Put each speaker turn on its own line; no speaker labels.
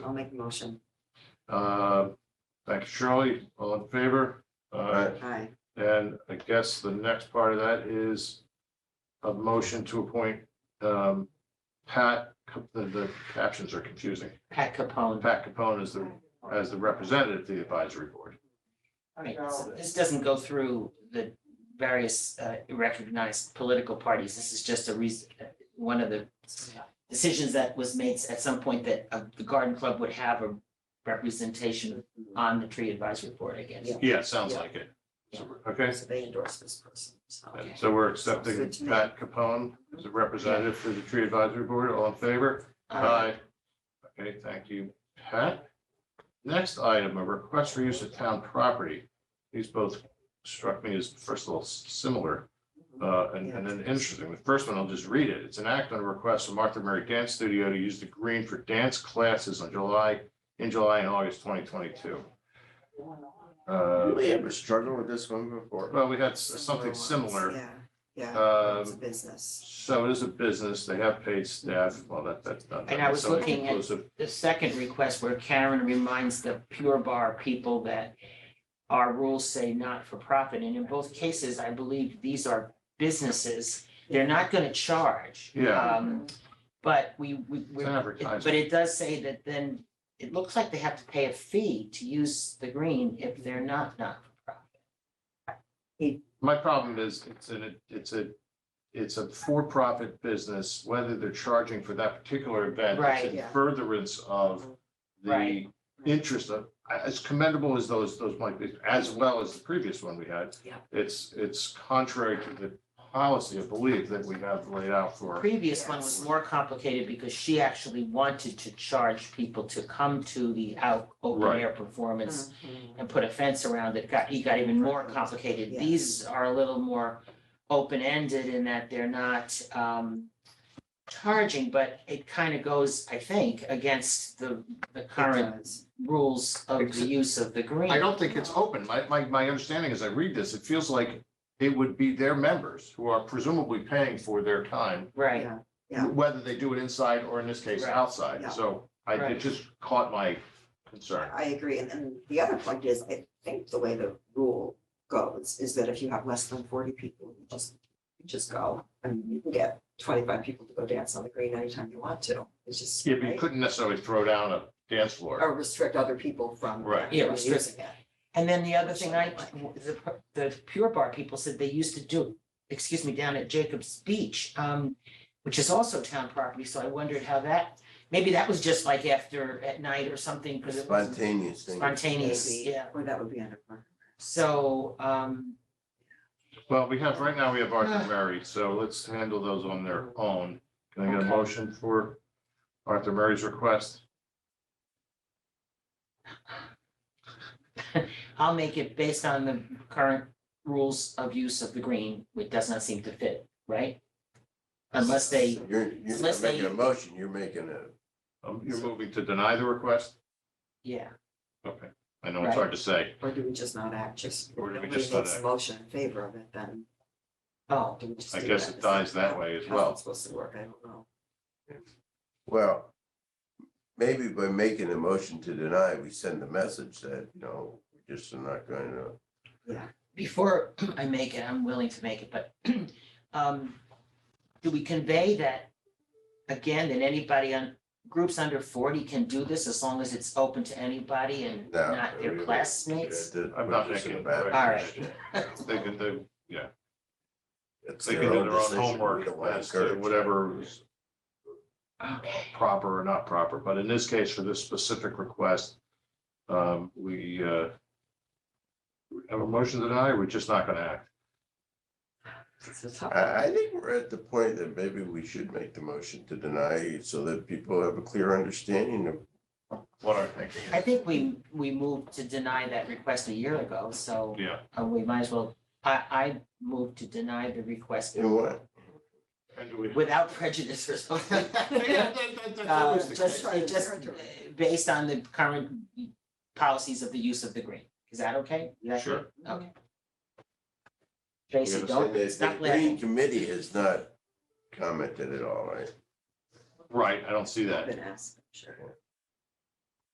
I'll make a motion.
Uh, Thank you, Shirley. All in favor? Uh,
Aye.
And I guess the next part of that is a motion to appoint um, Pat, the, the captions are confusing.
Pat Capone.
Pat Capone is the, as the representative to the advisory board.
Right, so this doesn't go through the various uh, recognized political parties. This is just a reason, uh, one of the decisions that was made at some point that uh, the garden club would have a representation on the tree advisory board again.
Yeah.
Yeah, sounds like it. So, Okay,
So they endorse this person, so.
Okay.
so we're
Sounds
accepting
good to me.
Pat Capone as a representative for the tree advisory board. All in favor?
Uh,
Okay, thank you, Pat. Next item, a request for use of town property. These both struck me as, first of all, s- similar uh, and and then interesting. The first one, I'll just read it. It's an act on a request from Martha Murray Dance Studio to use the green for dance classes on July, in July and August twenty twenty-two. Uh,
We ever struggled with this one before?
Well, we had s- something similar.
Yeah, yeah, it's a
Um,
business.
So it is a business. They have paid staff. Well, that, that's not.
And I was
that's not
looking at-
inclusive.
The second request where Karen reminds the Pure Bar people that our rules say not for profit. And in both cases, I believe these are businesses. They're not going to charge.
Yeah.
Um,
Uh-huh.
But we, we,
It's
we're
an
It-
advertisement.
But it does say that then, it looks like they have to pay a fee to use the green if they're not not-for-profit.
My problem is, it's an, it's a, it's a for-profit business, whether they're charging for that particular event. it's
Right,
in
yeah.
Furtherance of the
Right.
interest of, as commendable as those, those might be, as well as the previous one we had.
Yeah.
It's, it's contrary to the policy, I believe, that we have laid out
The
for.
Previous one was more complicated because she actually wanted to charge people to come to the out, open
Right.
air performance
Mm-hmm.
and put a fence around it, got, it got even more complicated.
Yeah.
These are a little more open-ended in that they're not um charging, but it kind of goes, I think, against the the current rules of the
Except-
use of the green.
I don't think it's open. My, my, my understanding as I read this, it feels like it would be their members who are presumably paying for their time
Right.
Yeah, Yeah.
whether they do it inside or in this case,
Right.
outside.
Yeah.
So I, it
Right.
just caught my concern.
I agree. And then the other point is, I think the way the rule goes is that if you have less than forty people, you just, you just go. And you can get twenty-five people to go dance on the green anytime you want to. It's just.
Yeah, but you
right?
couldn't necessarily throw down a dance floor.
Or restrict other people from.
Right.
Yeah,
from
restrict-
using it.
And then the other thing I, the, the Pure Bar people said they used to do, excuse me, down at Jacob's Beach, um, which is also town property, so I wondered how that, maybe that was just like after, at night or something, because it was
Spontaneous thing.
spontaneous,
Maybe.
yeah.
Or that would be under. park.
So, um,
Well, we have, right now, we have Arthur
Uh.
Murray, so let's handle those on their own. Can I get a
Okay.
motion for Arthur Murray's request?
I'll make it based on the current rules of use of the green, which does not seem to fit, right? Unless they,
You're, you're
Unless
not making a
they-
motion, you're making a,
Um, You're moving to deny the request?
yeah,
Okay, I know it's hard to say.
Or do we just not act, just, if
Or do we
nobody
just
makes
not
a
act?
motion in favor of it, then
oh,
do we just?
I
do
guess
that?
it
Is
dies that way as
how's it
well.
Supposed to work, I don't know.
well, maybe by making a motion to deny, we send the message that, you know, we're just not going to.
before I make it, I'm willing to make it, but um, do we convey that again, that anybody on, groups under forty can do this as long as it's open to anybody and
No,
not
we-
their
we-
classmates?
yeah, that-
I'm not
we're just in
making
a bad
it,
All
right.
position.
They can do,
It's
they can do their own
decision. We
homework
don't wanna
as to
encourage
whatever
that.
is
Okay,
proper or not proper, but in this case, for this specific request, um, we, uh, have a motion to deny, or we're just not gonna act.
It's a tough one.
I, I think we're at the point that maybe we should make the motion to deny so that people have a clear understanding of
What are you thinking?
I think we, we moved to deny that request a year ago, so
Yeah,
uh, we might as well, I, I moved to deny the request
in what.
and do we?
without prejudice or something. Uh,
Always the
just,
case.
case.
just uh, based on the current policies of the use of the green. Is that okay? Is that-
Sure.
Okay.
We
Tracy,
understand
don't,
that
stop
The Green
laughing.
Committee has not commented at all, right?
Right, I don't see
I've
that.
been asked, sure.